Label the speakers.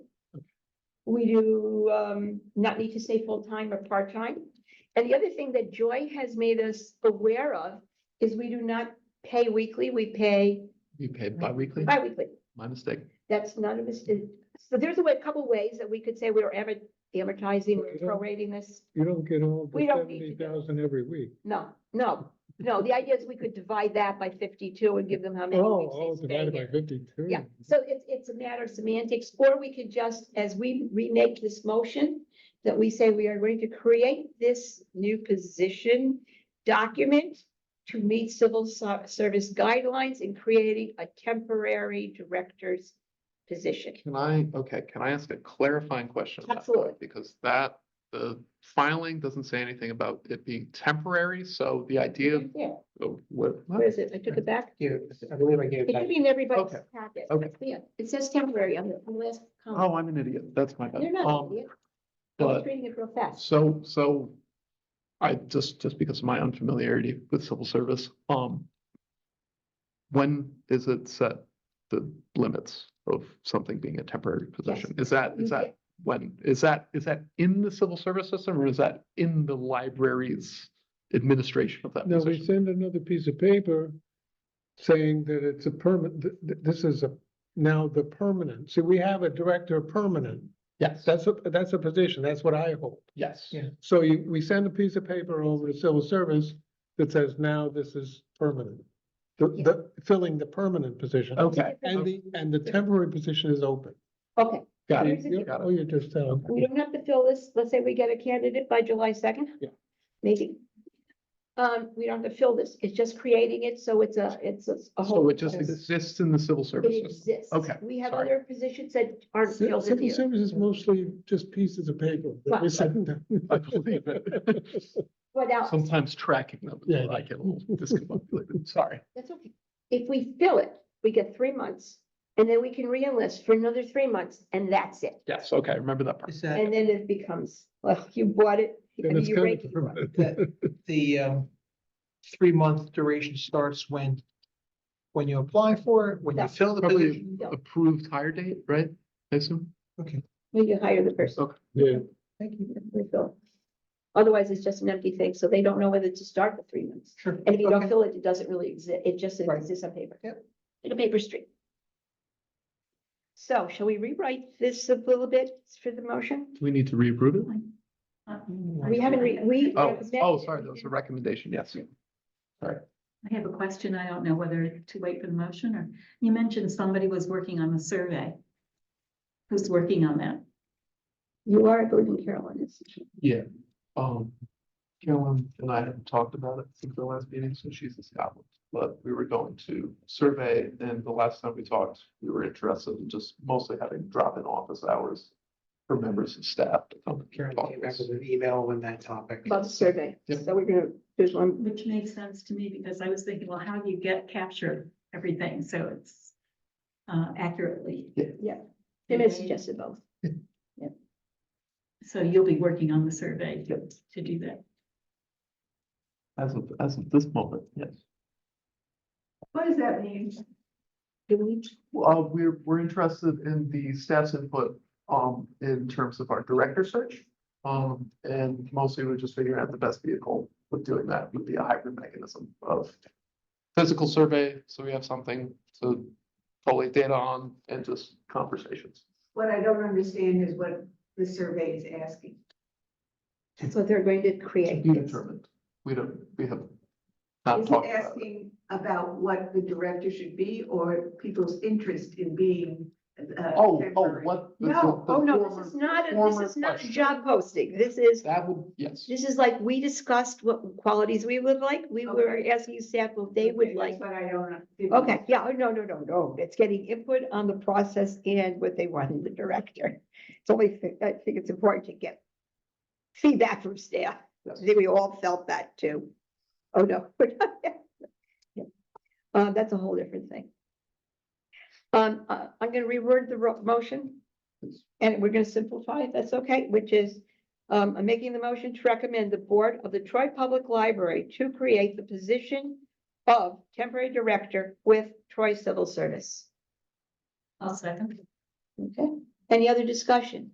Speaker 1: We do um not need to say full-time or part-time. And the other thing that Joy has made us aware of is we do not pay weekly, we pay
Speaker 2: You pay bi-weekly?
Speaker 1: bi-weekly.
Speaker 2: My mistake.
Speaker 1: That's not a mistake. So there's a way, a couple ways that we could say we're adver- amortizing, we're
Speaker 3: Yeah.
Speaker 1: prorating this.
Speaker 3: You don't get all the
Speaker 1: We don't need
Speaker 3: seventy
Speaker 1: to do it.
Speaker 3: thousand every week.
Speaker 1: No, no, no. The idea is we could divide that by fifty-two and give them how many
Speaker 3: Oh,
Speaker 1: weeks
Speaker 3: oh,
Speaker 1: they stay
Speaker 3: divided by
Speaker 1: here.
Speaker 3: fifty-two.
Speaker 1: Yeah, so it's, it's a matter of semantics, or we could just, as we remake this motion, that we say we are going to create this new position document to meet civil ser- service guidelines in creating a temporary director's position.
Speaker 2: Can I, okay, can I ask a clarifying question? about that?
Speaker 1: Absolutely.
Speaker 2: Because that, the filing doesn't say anything about it being temporary, so the idea of,
Speaker 1: Yeah,
Speaker 2: oh, what?
Speaker 1: where is it? I took it back.
Speaker 4: Here, I believe I gave
Speaker 1: It should
Speaker 4: that.
Speaker 1: be in everybody's
Speaker 2: Okay,
Speaker 1: packet.
Speaker 2: okay.
Speaker 1: Yeah, it says temporary on the on the last
Speaker 2: Oh,
Speaker 1: comment.
Speaker 2: I'm an idiot. That's my bad.
Speaker 1: You're not,
Speaker 2: Um,
Speaker 1: an idiot. I was
Speaker 2: But,
Speaker 1: reading it real fast.
Speaker 2: so, so I just, just because of my unfamiliarity with civil service, um, when is it set the limits of something being a temporary position? Is that,
Speaker 1: You
Speaker 2: is that when, is that, is that in the civil service system or is that in the library's administration of that
Speaker 3: Now, they
Speaker 2: position?
Speaker 3: send another piece of paper saying that it's a permanent, this is a, now the permanent. See, we have a director of permanent.
Speaker 2: Yes,
Speaker 3: That's a, that's a position. That's what I hold.
Speaker 2: yes.
Speaker 4: Yeah.
Speaker 3: So you, we send a piece of paper over to civil service that says now this is permanent. The,
Speaker 1: Yeah.
Speaker 3: the, filling the permanent position.
Speaker 2: Okay,
Speaker 3: And the, and the temporary position is open.
Speaker 1: Okay,
Speaker 2: got it.
Speaker 1: Here's the-
Speaker 3: You-
Speaker 2: Got it.
Speaker 3: Oh, you're just, uh,
Speaker 1: We don't have to fill this, let's say we get a candidate by July second.
Speaker 3: Yeah.
Speaker 1: Maybe. Um, we don't have to fill this, it's just creating it, so it's a, it's a- a whole.
Speaker 2: So it just exists in the civil service
Speaker 1: It
Speaker 2: system?
Speaker 1: exists.
Speaker 2: Okay,
Speaker 1: We have
Speaker 2: sorry.
Speaker 1: other positions that aren't
Speaker 3: Ci-
Speaker 1: filled in
Speaker 3: Civil
Speaker 1: here.
Speaker 3: service is mostly just pieces of paper that we
Speaker 1: Right.
Speaker 3: send them.
Speaker 2: I believe it.
Speaker 1: But now,
Speaker 2: Sometimes tracking them, is
Speaker 3: Yeah,
Speaker 2: where I
Speaker 3: yeah.
Speaker 2: get a little discombobulated, sorry.
Speaker 1: that's okay. If we fill it, we get three months, and then we can re-enlist for another three months, and that's it.
Speaker 2: Yes, okay, I remember that part.
Speaker 4: Is that
Speaker 1: And then it becomes, well, you bought it. I
Speaker 3: Then
Speaker 1: mean,
Speaker 3: it's
Speaker 1: you
Speaker 3: kind
Speaker 1: rake
Speaker 3: of
Speaker 1: it.
Speaker 3: permanent.
Speaker 4: the, the, um, three-month duration starts when, when you apply for it, when you
Speaker 1: Yeah.
Speaker 4: fill the
Speaker 2: Probably-
Speaker 4: position?
Speaker 1: Yeah.
Speaker 2: Approved hire date, right? I assume?
Speaker 4: Okay,
Speaker 1: When you hire the person.
Speaker 3: Yeah,
Speaker 4: thank you,
Speaker 1: we fill. Otherwise, it's just an empty thing, so they don't know whether to start for three months.
Speaker 4: sure.
Speaker 1: And if you don't
Speaker 4: okay.
Speaker 1: fill it, it doesn't really exist, it just
Speaker 4: Right.
Speaker 1: exists on paper.
Speaker 4: Yep.
Speaker 1: Like a paper street. So shall we rewrite this a little bit for the motion?
Speaker 2: Do we need to reapprove it?
Speaker 1: We haven't, re- we.
Speaker 2: Oh, oh,
Speaker 1: recommend-
Speaker 2: sorry, that was a recommendation, yes.
Speaker 5: I have a question. I don't know whether to wait for the motion or, you mentioned somebody was working on the survey. Who's working on that?
Speaker 1: You are, I believe in Carolyn, is
Speaker 2: Yeah, um, Carolyn and I haven't talked about it since the last meeting, so she's in Scotland. But we were going to survey, and the last time we talked, we were interested in just mostly having drop-in office hours for members and staff to come. and
Speaker 4: Karen
Speaker 2: talk
Speaker 4: came
Speaker 2: to
Speaker 4: back
Speaker 2: us.
Speaker 4: with an email on that topic.
Speaker 1: about the survey.
Speaker 2: Yep.
Speaker 1: So we're gonna, there's one,
Speaker 5: Which makes sense to me because I was thinking, well, how do you get capture everything? So it's uh, accurately.
Speaker 1: yeah, Tim has suggested both.
Speaker 5: So you'll be working on the survey to, to do that.
Speaker 2: As of, as of this moment, yes.
Speaker 5: What does that mean?
Speaker 1: Do we,
Speaker 2: Well, uh, we're, we're interested in the staff's input, um, in terms of our director search. Um, and mostly we're just figuring out the best vehicle with doing that would be a hybrid mechanism of physical survey, so we have something to collate data on and just conversations.
Speaker 6: What I don't understand is what the survey is asking.
Speaker 1: that's what they're going to
Speaker 2: To
Speaker 1: create.
Speaker 2: be determined. We don't, we have not
Speaker 6: Is it
Speaker 2: talked Uh, about it.
Speaker 6: asking about what the director should be or people's interest in being? uh,
Speaker 2: Oh, oh,
Speaker 6: temporary?
Speaker 2: what? the-
Speaker 1: No,
Speaker 2: the
Speaker 1: oh, no,
Speaker 2: former-
Speaker 1: this is not, a-
Speaker 2: former
Speaker 1: this is not a
Speaker 2: question.
Speaker 1: job posting. This is
Speaker 2: That would, yes.
Speaker 1: This is like, we discussed what qualities we would like, we were
Speaker 6: Okay.
Speaker 1: asking staff what they would
Speaker 6: Okay,
Speaker 1: like.
Speaker 6: that's What I don't. didn't-
Speaker 1: Okay, yeah, oh, no, no, no, no, it's getting input on the process and what they want in the director. It's only, fi- I think it's important to get feedback from staff, I
Speaker 2: yes.
Speaker 1: think we all felt that too. Oh, no. we're not there. Uh, that's a whole different thing. Um, uh, I'm gonna reword the ro- motion. And we're gonna simplify it, that's okay, which is, um, I'm making the motion to recommend the board of the Troy Public Library to create the position of temporary director with Troy Civil Service.
Speaker 5: I'll second.
Speaker 1: Okay, any other discussion?